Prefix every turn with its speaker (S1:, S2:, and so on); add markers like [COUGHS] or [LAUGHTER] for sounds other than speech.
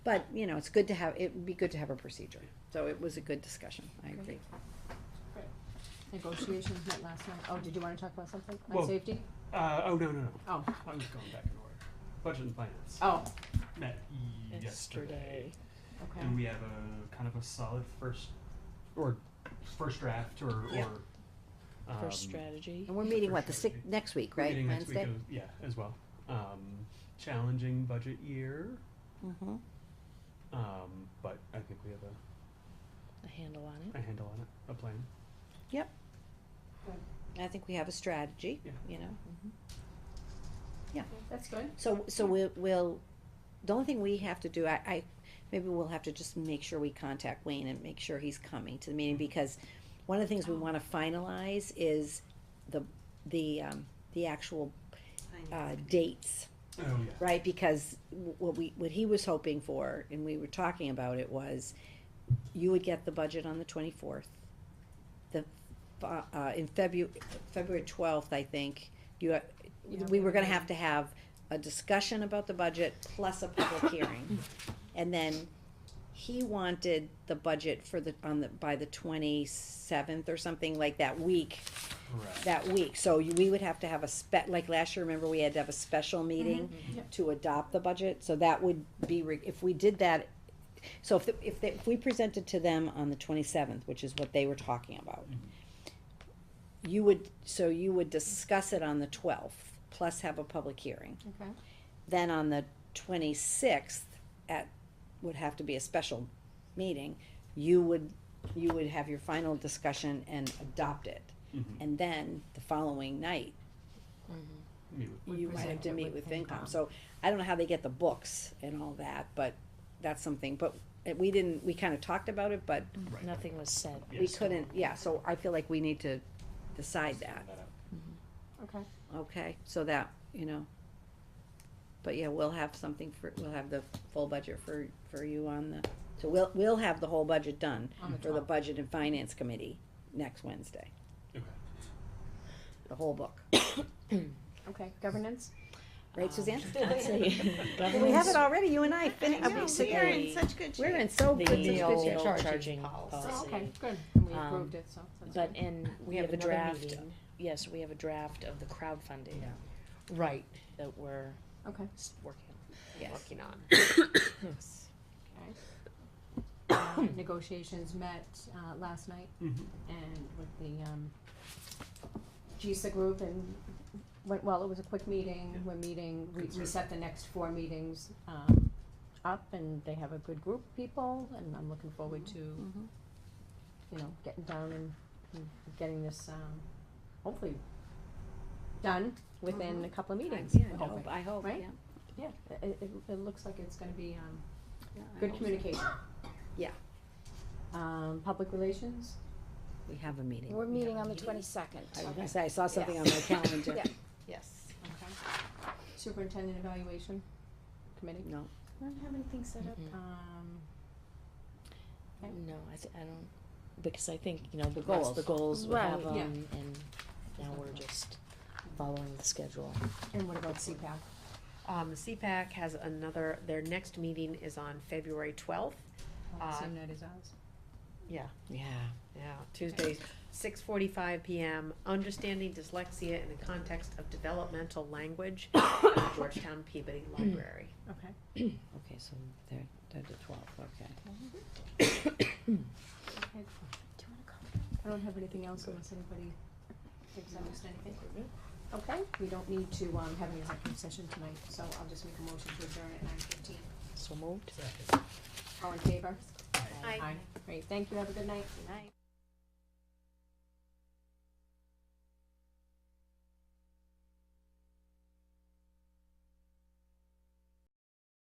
S1: But, you know, it's good to have, it would be good to have a procedure. So it was a good discussion, I agree.
S2: Negotiations met last night. Oh, did you wanna talk about something? On
S3: Well-
S2: safety?
S3: Uh, oh, no, no, no.
S2: Oh,
S3: I'm just going back in order. Budget and finance.
S2: oh,
S3: Met yesterday.
S4: Yesterday.
S2: okay.
S3: And we have a kind of a solid first, or first draft or,
S1: Yeah.
S3: or.
S4: for
S3: um,
S4: strategy.
S1: And we're meeting, what, the
S3: Sure.
S1: six, next week,
S3: we're
S1: right?
S3: meeting next week
S1: Wednesday?
S3: as- Yeah, as well. Um, challenging budget year,
S1: Mhm.
S3: um, but I think we have a,
S4: A handle on it.
S3: a handle on it, a plan.
S1: Mm-hmm. I think we have a strategy,
S3: Yeah.
S1: you know?
S2: That's good.
S1: So, so we'll, we'll, the only thing we have to do, I, I, maybe we'll have to just make sure we contact Wayne and make sure he's coming to the meeting,
S3: Mm-hmm.
S1: because one of the things we wanna finalize is the, the, um, the actual, uh, dates,
S3: Oh, yeah.
S1: right? Because w- what we, what he was hoping for, and we were talking about it, was you would get the budget on the twenty-fourth. The, uh, uh, in Febu- February twelfth, I think, you, ha-
S2: Yeah,
S1: we
S2: we
S1: were gonna
S2: were-
S1: have to have a discussion about the budget plus a public hearing. And then he wanted the budget for the, on the, by the twenty-seventh or something like that week,
S3: Correct.
S1: that week. So you- we would have to have a spe, like last year, remember, we had to have a special meeting
S2: Mm-hmm. Yep.
S1: to adopt the budget, so that would be, re- if we did that, so if, the- if, they- if we presented to them on the twenty-seventh, which is what they were talking about, you would, so you would discuss it on the twelfth, plus have a public hearing.
S2: Okay.
S1: Then on the twenty-sixth, at, would have to be a special meeting, you would, you would have your final discussion and adopt it.
S3: Mhm.
S1: And then the following night,
S3: Meet with-
S2: We
S1: you might have
S2: present
S1: to
S2: it
S1: meet with
S2: with
S1: FinCom,
S2: FinCom.
S1: so I don't know how they get the books and all that, but that's something, but uh, we didn't, we kinda talked about it, but
S3: Right.
S4: Nothing was said.
S1: we
S3: Yes.
S1: couldn't, yeah, so I feel like we need to decide that,
S3: Send that out.
S2: Okay.
S1: okay, so that, you know. But yeah, we'll have something for, we'll have the full budget for, for you on the, so we'll, we'll have the whole budget done
S2: On the
S1: for the
S2: 12th.
S1: Budget and Finance Committee next Wednesday,
S3: Okay.
S1: the whole book,
S2: Okay, governance?
S1: right
S2: Um, [LAUGHS]
S1: Suzanne?
S4: I'd say
S1: We have
S4: governance,
S1: it already, you and I, fin- uh,
S4: know,
S1: basically-
S4: we're in
S5: such good
S1: We're in so good, such
S4: the
S1: good
S4: old
S1: shape.
S4: charging
S2: Oh, okay,
S4: policy.
S2: good. And we
S4: Um,
S2: approved it, so that's
S4: But,
S2: good.
S4: [COUGHS] and we have a
S6: another
S4: draft,
S6: meeting.
S4: yes, we have a draft of the crowdfunding
S6: Right,
S4: that we're
S2: Okay.
S4: s- working on.
S1: Yes.
S6: working on.
S2: Okay. Uh, Negotiations met, uh, last night
S3: Mhm.
S2: and with the, um, GISA group and went well. It was a quick meeting. We're meeting, we,
S3: Good
S2: we
S3: start.
S2: set the next four meetings, um, up and they have a good group of people and I'm looking forward to,
S1: Mhm. Mm-hmm.
S2: you know, getting down and and getting this, um, hopefully done within a couple of meetings.
S1: Yeah,
S2: we're
S1: Mm-hmm. I
S2: hoping.
S1: hope, I hope, yeah.
S2: Right? Yeah, it, it, it looks like it's gonna be, um,
S1: Yeah, I
S2: good
S1: hope so.
S2: communication.
S1: Yeah.
S2: Um, public relations?
S1: We have a meeting.
S5: We're meeting on the twenty-second.
S1: I was gonna say, I saw something on my calendar.
S5: Yeah.
S6: Yes.
S2: Okay. Superintendent evaluation committee?
S1: No,
S2: I don't have anything set up.
S4: Mhm.
S2: Um, Okay.
S4: [CLEARS THROAT] No, I thi- I don't, because I think, you know, the goals, the goals, we have
S2: Right. Yeah.
S4: them, and now we're just following the schedule.
S2: and what about CPAC?
S6: Um, CPAC has another, their next meeting is on February twelfth, Uh,
S2: Same night as ours?
S4: Yeah.
S6: yeah, Tuesday, six forty-five PM, Understanding Dyslexia in the Context of Developmental Language, at Georgetown Peabody Library.
S2: Okay. [COUGHS]
S1: okay, so they're, they're the twelfth, okay.
S2: I don't have anything else unless anybody thinks I missed anything. Okay, we don't need to, um, have an executive session tonight, so I'll just make a motion to adjourn at nine fifteen.
S4: So moved.
S3: Second.
S2: All in favor?
S6: Aye.
S2: Great, thank you, have a good night.
S1: Night.